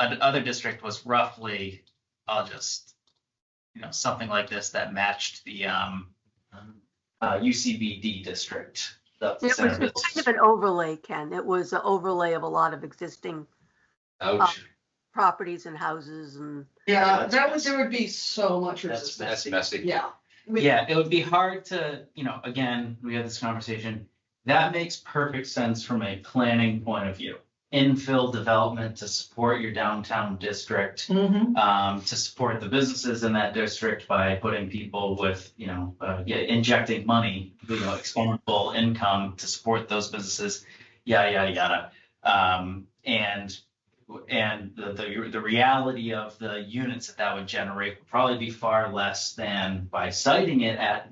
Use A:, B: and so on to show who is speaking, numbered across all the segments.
A: an- other district was roughly, I'll just, you know, something like this that matched the, um, uh, UCBD district. the
B: It was just
A: center.
B: kind of an overlay, Ken. It was an overlay of a lot of existing
C: Ouch,
B: properties and houses and
D: Yeah, that would, there would be so much
A: That's
D: resistance.
C: that's messy.
D: Yeah. With-
A: Yeah, it would be hard to, you know, again, we had this conversation. That makes perfect sense from a planning point of view. Infill development to support your downtown district.
D: Mhm.
A: um, to support the businesses in that district by putting people with, you know, uh, yeah, injecting money, you know, exponential income to support those businesses, yada, yada, yada. Um, and, and the, the, the reality of the units that that would generate would probably be far less than by citing it at,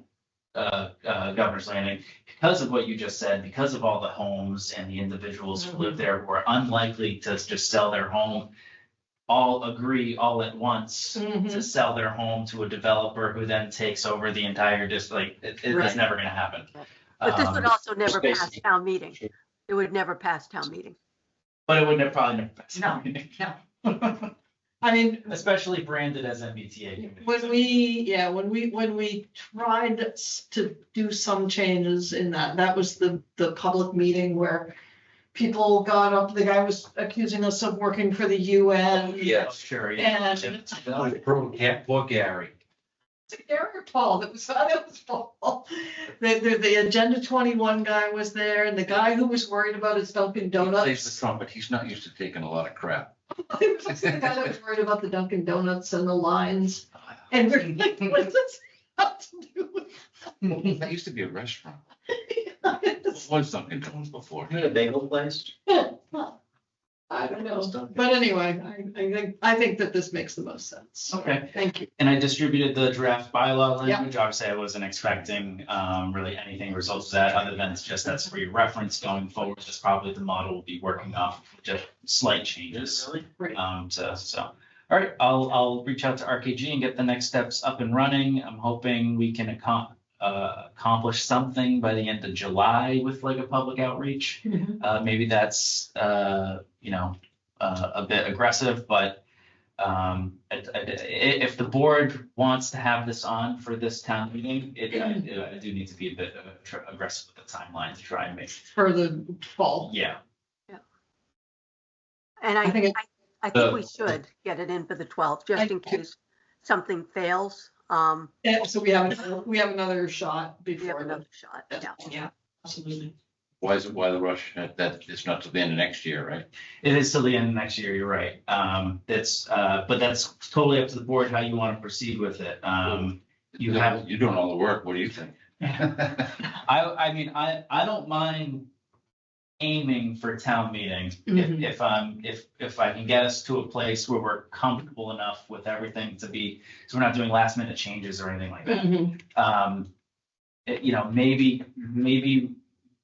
A: uh, uh, Governor's Landing because of what you just said, because of all the homes and the individuals who live there who are unlikely to just sell their home all agree all at once to
D: Mhm.
A: sell their home to a developer who then takes over the entire district. Like, it, it- it's
D: Right.
A: never gonna happen.
B: But this would
A: Um,
B: also never pass
A: basically-
B: town meeting. It would never pass town meeting.
A: But it wouldn't have probably. never passed.
D: No,
A: I mean, especially branded as MBTA. communities.
D: When we, yeah, when we, when we tried s- to do some changes in that, that was the, the public meeting where people got up, the guy was accusing us of working for the UN.
A: Oh, Sure, yeah.
D: And
C: Poor Gary.
D: Eric or Paul, that was, that was Paul. The, the, the Agenda twenty-one guy was there and the guy who was worried about his Dunkin'
C: He
D: Donuts.
C: plays the trumpet. He's not used to taking a lot of crap.
D: I was like, the guy that was worried about the Dunkin' Donuts and the lines, and we're like, what does this have to do with?
C: That used to be a restaurant.
D: this?
C: Was Dunkin' Donuts before.
A: a bagel place?
D: I don't know, but anyway, I, I think, I think that this makes the most sense.
A: Okay.
D: Thank you.
A: And I distributed the draft bylaw
D: Yeah.
A: language. Obviously, I wasn't expecting um really anything results of that, other than it's just that's for your reference going forward. That's probably the model we'll be working off, just slight changes.
D: Right.
A: Um, so, so, all right, I'll, I'll reach out to RKG and get the next steps up and running. I'm hoping we can accom- uh, accomplish something by the end of July with like a public outreach. Uh, maybe that's, uh, you know, uh, a bit aggressive, but, um, i- i- i- if the board wants to have this on for this town meeting, it, I- I do need to be a bit uh, tr- aggressive with the timeline to try and make,
D: For the fall.
A: yeah.
B: And I,
D: I think it-
B: I, I think we
C: The-
B: should get it in for the 12th, just in
D: I-
B: case something fails. Um,
D: Yeah, so we have, we have another shot
B: we have
D: before.
B: another
D: the-
B: shot. Yeah.
D: Yeah, absolutely.
C: Why is it, why the rush? That, that it's not till the end of next year, right?
A: It is till the end of next year, you're right. Um, that's, uh, but that's totally up to the board how you want to proceed with it. Um, you have
C: You're doing all the work. What do you think?
A: I, I mean, I, I don't mind aiming for town meetings. If,
D: Mhm.
A: if I'm, if, if I can get us to a place where we're comfortable enough with everything to be, so we're not doing last minute changes or anything like that.
D: Mhm.
A: Um, it- you know, maybe, maybe,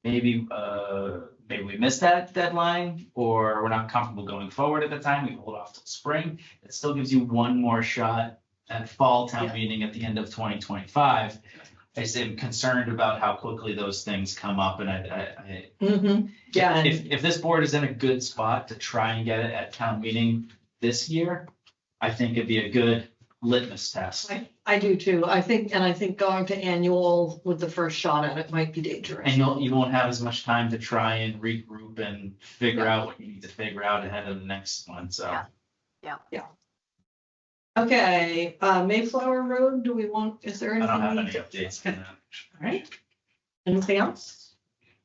A: maybe, uh, maybe we missed that deadline or we're not comfortable going forward at the time. We hold off till spring. It still gives you one more shot at fall town
D: Yeah.
A: meeting at the end of twenty twenty-five. I just am concerned about how quickly those things come up and I, I, I.
D: Mhm. Yeah, and-
A: If, if this board is in a good spot to try and get it at town meeting this year, I think it'd be a good litmus test.
D: I, I do too. I think, and I think going to annual with the first shot at it might be dangerous.
A: And you'll, you won't have as much time to try and regroup and figure out what you need to figure out ahead of the next one, so.
B: Yeah.
D: Okay, uh, Mayflower Road, do we want, is there
A: I
D: anything?
A: don't have any
D: we-
A: updates on that.
D: All right. Anything else?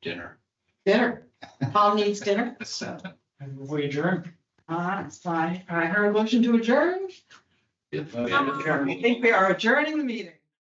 C: Dinner.
D: Dinner. Paul needs dinner.
A: We adjourn.
D: Ah, it's fine. I heard a motion to adjourn.
C: Yeah.
D: I think we are adjourning the meeting.